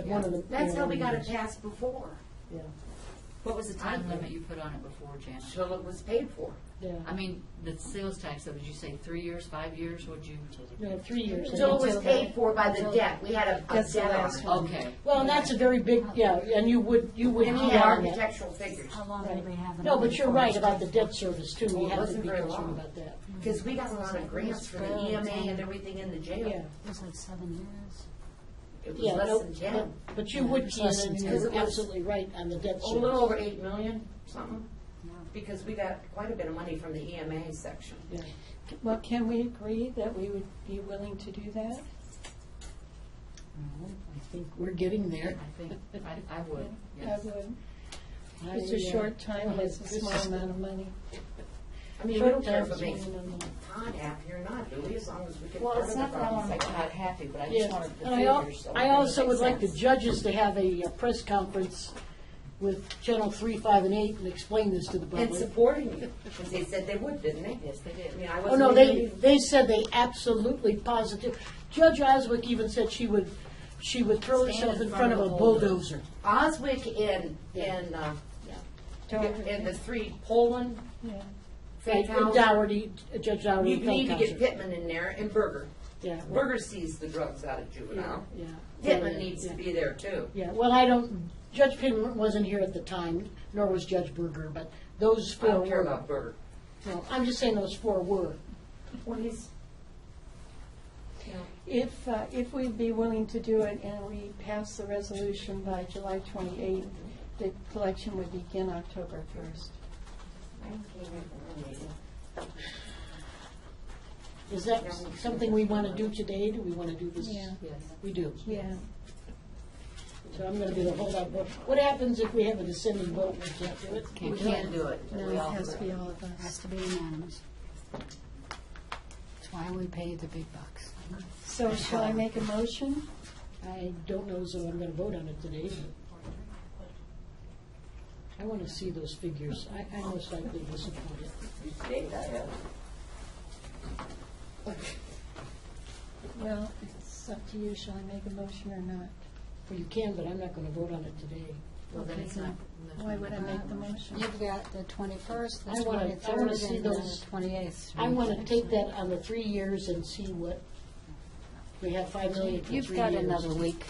one of the. That's how we got it Yeah. passed before, Yeah, What was the time I- limit you put on it before, Janet? till it was paid for. yeah. I mean, the sales tax, though, did you say three years, five years, would you? No, three years. Till it was Until paid that- for by the until- debt, we had a a That's the debt last one. on Okay. Well, and that's a very big, yeah, and you would, you it. would. And we count had on that. architectural figures, How long did we have? No, but you're right about the the. debt service too. Well, We it have to wasn't be very concerned long. about that. because we got a lot of grants for the EMA and everything in the Yeah, jail. It was like seven years. It was yeah. less no, than no, ten, But you would, It's less Ken, and than ten. you're absolutely right on the debt a little service. over eight million, something, Yeah. because we got quite a bit of money from the EMA section. Yeah. Well, can we agree that we would be willing to do that? No, I think we're getting there. I think, I, I would, I yes. would. I, It's a uh, short time, and it's a this small is- amount of money. I mean, we Short don't care if term it makes is one and a Todd happy or not, do we, as long as we get Well, part of it's the not that I want problem. to make Todd happy, but I just Yeah, wanted the and I, al- figures. so I it also makes would like the sense. judges to have a uh, press conference with Channel Three, Five, and Eight and explain this to the And public. supporting you, because they said they would, didn't they? Yes, they did. I mean, I Oh, wasn't. no, they, even- they said they absolutely positive. Judge Oswick even said she would, she would throw Stand herself in front of a bulldozer. Oswick and, and, uh, and the three Poland, Yeah. And and Finkhouse. Dougherty, Judge Dougherty. You need to get Feldhauser. Pittman in there and Berger. Yeah, Berger sees the drugs out of juvenile. yeah. Pittman needs Yeah. to be there too. Yeah, well, I don't, Judge Pittman wasn't here at the time, nor was Judge Berger, but those I four don't care were. about Berger. No, I'm just saying those four were. Well, he's. If, uh, if we'd be willing to do it and we pass the resolution by July 28th, the collection would begin October 1st. Is that something we want to do today? Do we want to do this? Yeah. Yes. We do. Yeah. So I'm going to be the holdout. vote. What happens if we have a dissenting vote? We can't do it? We can't do it. No, We it all has to agree. be all of Has us. to be unanimous. That's why we pay the big bucks. So shall I make a motion? I don't know, so I'm going to vote on it today. I want to see those figures. I, I most likely will support it. Well, it's up to you, shall I make a motion or not? Well, you can, but I'm not going to vote on it today. Well, then it's not. Why would I make the motion? You've got the twenty-first, the I wanna- I wanna twenty-third, see and the those- twenty-eighth. I want to take that on the three years and see what, we have five million for three years. You've got another week.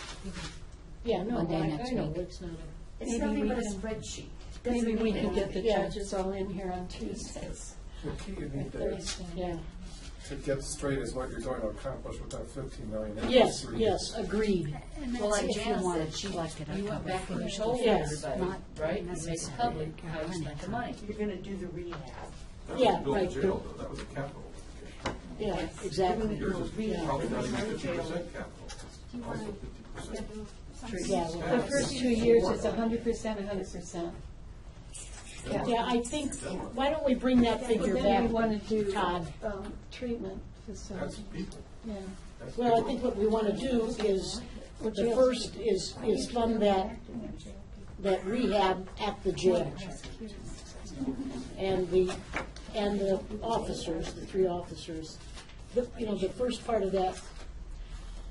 Yeah, no, Monday I I next know, week. it's not a. It's Maybe nothing we but a can- spreadsheet. Doesn't Maybe we mean can get the anything. Yeah. judges all in here on Tuesday. The key you need to, Thursday. Yeah, to get straight is what you're going to accomplish with that fifteen million. in yes, three yes, agreed. And Well, that's like if you Janet wanted, said, she she liked it You went October back and you first. told Yes. everybody, Not right? You made it necessary. public, how you spent the money. You're gonna do the rehab. years. Yeah, That was right. built jail, though. that was a capital. Yeah, exactly. Yours is Yeah. probably not even fifty percent capital. It's also 50%. Yeah, The well, first two years is hundred percent, hundred percent. yeah, I think, why don't we bring that figure Then we back? want to do Todd. um, treatment That's facility, people. yeah. That's Well, I people. think what we want to do is, the first is, is fund that, that rehab at the jail. And the, and the officers, the three officers, the, you know, the first part of that.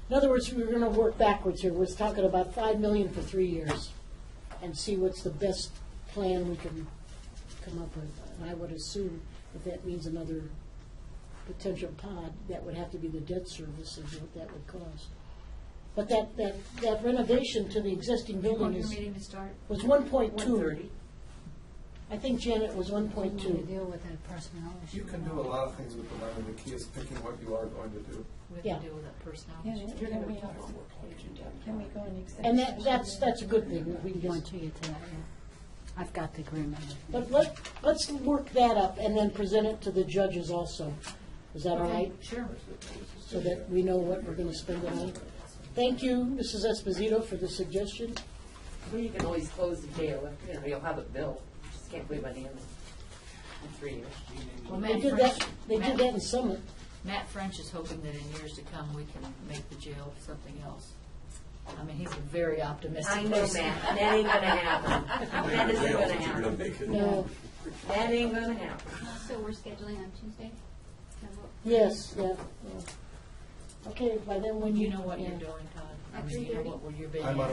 In other words, we're gonna work backwards here. We're talking about five million for three years and see what's the best plan we can come up with. And I would assume if that means another potential pod, that would have to be the debt service and what that would cost. But that, that, that renovation to the existing building is, to start? was one point One two. thirty. I think Janet was one We point want to two. deal with that personnel issue. You can do a lot of things with the money. The key is picking what you are going to do. We Yeah. have to deal with that Yeah, personality. Can we, can we go in And executive? that, that's, that's a good thing, we We want just, to get to that, yeah. I've got the agreement. but let, let's work that up and then present it to the judges also. Is that all right? Sure. So that we know what we're gonna spend it on. Thank you, Mrs. Esposito, for the suggestion. Well, you can always close the jail, if, you know, you'll have it built, just can't wait by the end of in three years. Well, They Matt did that, French, they did that in Matt, Summit. Matt French is hoping that in years to come, we can make the jail something else. I mean, he's a very optimistic I person. know, Matt, that ain't gonna happen. That isn't gonna happen. No, That ain't gonna happen. So we're scheduling on Tuesday? yes, yeah, yeah. Okay, by then when You you. know what yeah. you're doing, Todd. I mean, you know what we're- you're being I'm on a asked.